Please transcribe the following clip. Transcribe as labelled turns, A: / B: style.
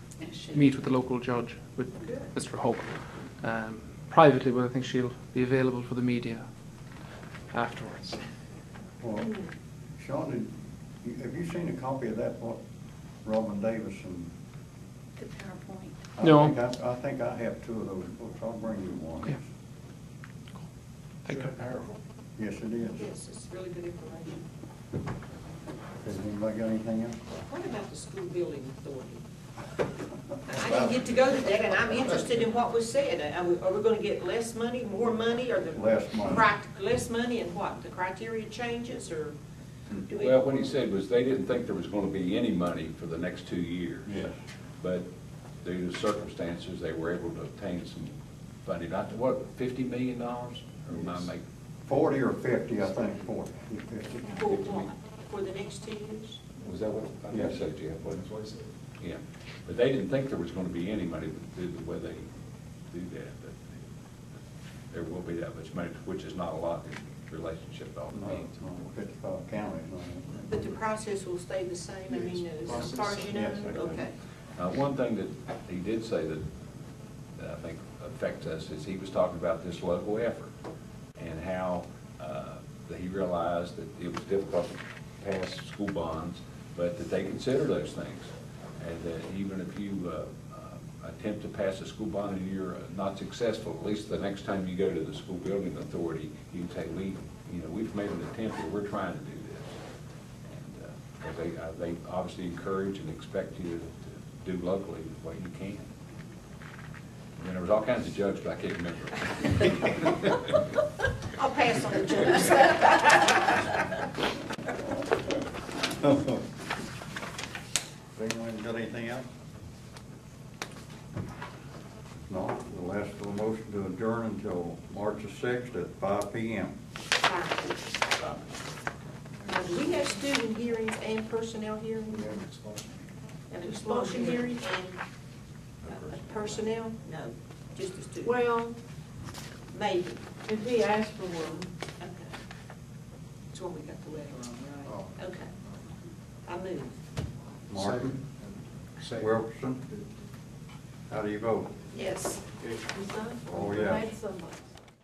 A: meet with the local judge, with Mr. Hope, um, privately, but I think she'll be available for the media afterwards.
B: Well, Sean, did you- have you seen a copy of that, what Robin Davis and?
C: The PowerPoint.
B: I
A: No.
B: think I I think I have two of those books, I'll bring you one.
A: Yeah. Thank you.
B: Yes, it is.
D: Yes, it's really good information.
B: Has anybody got anything else?
D: What about the school building authority? I didn't get to go to that, and I'm interested in what was said. Are we, are we gonna get less money, more money, or the?
B: Less money.
D: crit- Less money and what? The criteria changes, or do we?
E: Well, what he said was they didn't think there was going to be any money for the next two years.
B: Yes.
E: But due to circumstances, they were able to obtain some funding, I what, fifty million dollars? Or am I making?
B: Forty or fifty, I think, forty.
D: For what? For the next two years?
E: Was that what, I
B: Yeah.
E: think so, Jeff, wasn't it? Yeah, but they didn't think there was gonna be any money due to the way they do that, but there will be that much money, which is not a lot in relationship to all the needs.
B: Fifty-five counties. no.
D: But the process will stay the same, I mean, as far as you know?
B: Yes, I know.
D: Okay.
E: Uh, one thing that he did say that, that I think affects us is he was talking about this local effort and how, uh, that he realized that it was difficult to pass school bonds, but that they consider those things. And that even if you, uh, uh, attempt to pass a school bond and you're not successful, at least the next time you go to the school building authority, you can say, we, you know, we've made an attempt, or we're trying to do this. And, uh, 'cause they, uh, they obviously encourage and expect you to do locally what you can. And then there was all kinds of jokes, but I can't remember.
D: I'll pass on the judge.
B: Anyone got anything else? No, we'll ask for a motion to adjourn until March the sixth at five P M.
D: Now, do we have student hearings and personnel hearings? An expulsion hearing and uh, personnel? No, just the student.
F: Well,
D: Maybe,
F: if he asked for one,
D: okay. That's what we got the letter on,
B: Oh.
D: right? Okay. I move.
B: Martin?
G: Second.
B: Wilkerson? How do you vote?
D: Yes.
F: he's not.
B: Oh, yeah.
F: Made so much.